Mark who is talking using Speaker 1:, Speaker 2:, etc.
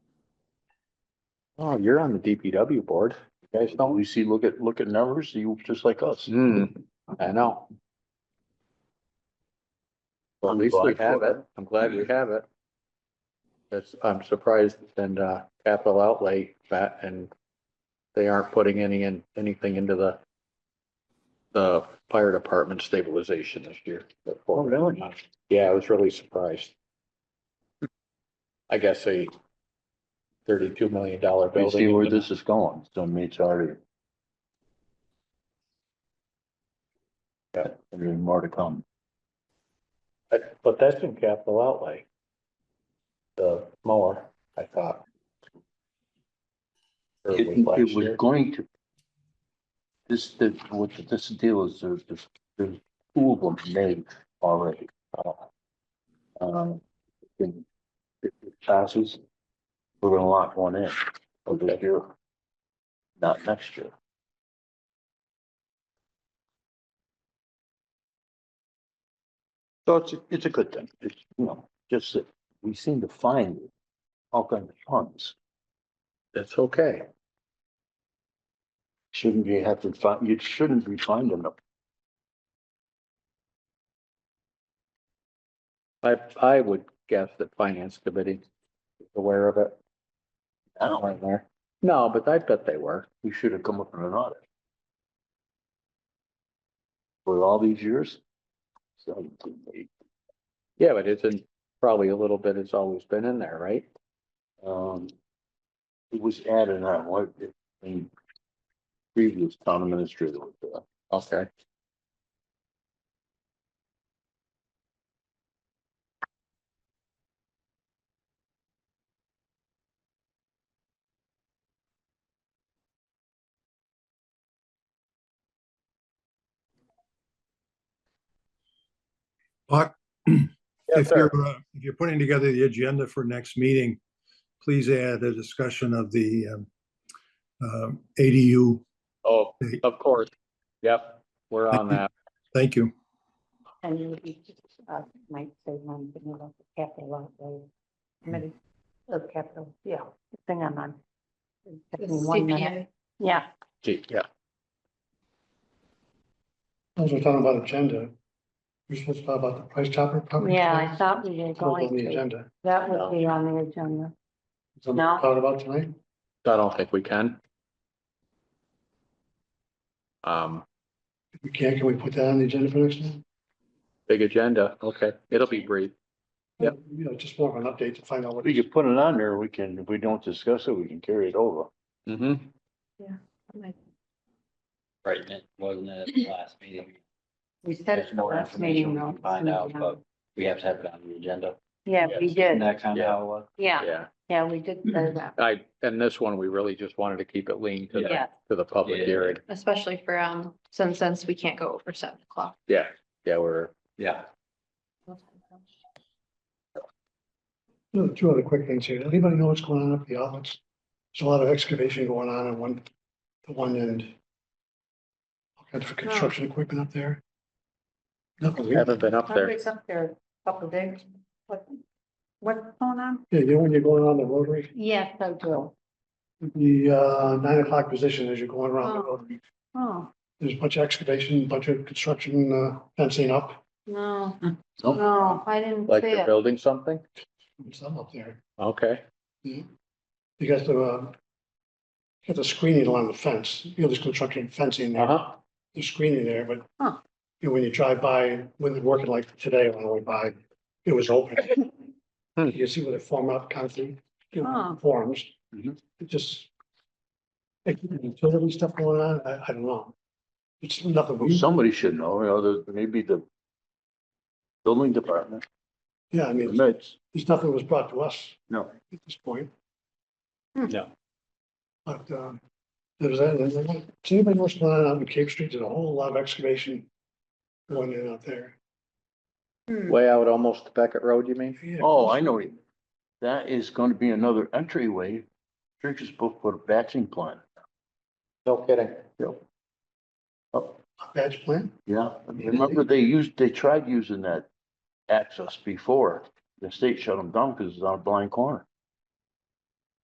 Speaker 1: Oh, you're on the DPW board. You guys don't, you see, look at, look at numbers, you just like us.
Speaker 2: Hmm,
Speaker 1: I know. Well, at least we have it. I'm glad we have it. That's, I'm surprised in uh capital outlay that and they aren't putting any in, anything into the the fire department stabilization this year. Oh, really? Yeah, I was really surprised. I guess a thirty-two million dollar
Speaker 2: We
Speaker 1: building.
Speaker 2: see where this is going, so I mean, it's already. Yeah, there's more to come.
Speaker 1: But, but that's in capital outlay. The mower, I thought. Or
Speaker 2: It,
Speaker 1: it was
Speaker 2: it
Speaker 1: last
Speaker 2: was
Speaker 1: year.
Speaker 2: going to. This, the, what this deal is, there's, there's, there's two of them made already. uh, Um, in, it it passes, we're gonna lock one in for this year. Not next year. So it's, it's a good thing, it's, you know, just that we seem to find all kinds of funds.
Speaker 1: That's okay.
Speaker 2: Shouldn't you have to find, you shouldn't be finding them.
Speaker 1: I, I would guess that finance committee is aware of it.
Speaker 2: Now,
Speaker 1: weren't there. No, but I bet they were.
Speaker 2: we should have come up with an audit. For all these years. So,
Speaker 1: Yeah, but it's in, probably a little bit, it's always been in there, right?
Speaker 2: um. It was added on, what, I mean. Previous town administrator uh, was there.
Speaker 1: Okay.
Speaker 3: Buck, if you're, uh, if you're putting together the agenda for next meeting, please add a discussion of the um, um, ADU.
Speaker 1: Oh, of course. Yep, we're on that.
Speaker 3: Thank you.
Speaker 4: And you would be, uh, might say one thing about the capital outlay committee of capital, yeah, thing I'm on. It took me one minute. Yeah,
Speaker 1: Gee, yeah.
Speaker 5: As we're talking about agenda, we're supposed to talk about the price chopper. property
Speaker 4: yeah, I
Speaker 5: tax?
Speaker 4: thought we were
Speaker 5: It's not
Speaker 4: going
Speaker 5: on the
Speaker 4: to,
Speaker 5: agenda.
Speaker 4: that would be on the agenda.
Speaker 5: Something
Speaker 4: No.
Speaker 5: Talking about tonight?
Speaker 1: I don't think we can. Um,
Speaker 5: If we can, can we put that on the agenda for next time?
Speaker 1: big agenda. Okay, it'll be brief. Yep.
Speaker 5: You know, just more of an update to find out what.
Speaker 2: We could put it on there, we can, if we don't discuss it, we can carry it over.
Speaker 1: Mm-hmm.
Speaker 6: Right, and it wasn't at the last meeting.
Speaker 4: We said it
Speaker 6: There's
Speaker 4: at the
Speaker 6: more
Speaker 4: last meeting,
Speaker 6: information we
Speaker 4: though.
Speaker 6: can Find out, but we have to have it on the agenda.
Speaker 4: Yeah, we
Speaker 6: Isn't
Speaker 4: did,
Speaker 6: that kind of how it was?
Speaker 4: yeah,
Speaker 1: Yeah,
Speaker 4: yeah, we did say that,
Speaker 1: I, and this one, we really just wanted to keep it lean to the,
Speaker 4: yeah.
Speaker 1: to the public
Speaker 6: Yeah.
Speaker 1: hearing.
Speaker 7: especially for, um, since, since we can't go over seven o'clock.
Speaker 1: Yeah, yeah, we're,
Speaker 6: Yeah.
Speaker 5: No, Two other quick things here. Anybody know what's going on up the outlets? There's a lot of excavation going on in one, the one end. All kinds of construction equipment up there. Nothing.
Speaker 1: we
Speaker 5: Yeah,
Speaker 1: haven't been up
Speaker 4: I
Speaker 1: there.
Speaker 4: was up there a couple of days. What, what's going on?
Speaker 5: you know, when you're going on the rotary,
Speaker 4: Yes, I do.
Speaker 5: the uh, nine o'clock position as you're going around the
Speaker 7: Oh.
Speaker 5: rotary.
Speaker 4: Oh,
Speaker 5: There's a bunch of excavation, bunch of construction uh, fencing up,
Speaker 7: No,
Speaker 2: Nope.
Speaker 7: no, I didn't
Speaker 1: Like
Speaker 7: see
Speaker 1: they're
Speaker 7: it.
Speaker 1: building something?
Speaker 5: some up there.
Speaker 1: Okay,
Speaker 5: You got the, uh, got the screening along the fence, you know, there's construction fencing there,
Speaker 1: uh-huh.
Speaker 5: there's screening there, but
Speaker 4: Huh.
Speaker 5: you know, when you drive by, when they're working like today, when I went by, it was open.
Speaker 1: Hmm.
Speaker 5: You can see where they form up concrete, you know,
Speaker 4: Huh.
Speaker 5: forms.
Speaker 1: Mm-hmm.
Speaker 2: Mhm.
Speaker 5: It just, like, utility stuff going on, I, I don't know. It's nothing.
Speaker 2: Well, Somebody should know, you know, the- maybe the. Building department,
Speaker 5: Yeah, I mean,
Speaker 2: admits,
Speaker 5: there's nothing was brought to us.
Speaker 2: no.
Speaker 5: at this point.
Speaker 4: Hmm.
Speaker 1: No.
Speaker 5: But, um, there's, that, and then, does anybody know what's going on out in Cape Street? There's a whole lot of excavation going in out there.
Speaker 4: hmm,
Speaker 1: Way out almost to Beckett Road, you mean?
Speaker 5: Yeah.
Speaker 2: Oh, I know. it. That is gonna be another entryway. Church is booked for a batching plant.
Speaker 1: No kidding.
Speaker 5: Badge plan?
Speaker 2: Yeah, remember they used, they tried using that access before. The state shut them down because it's on a blind corner.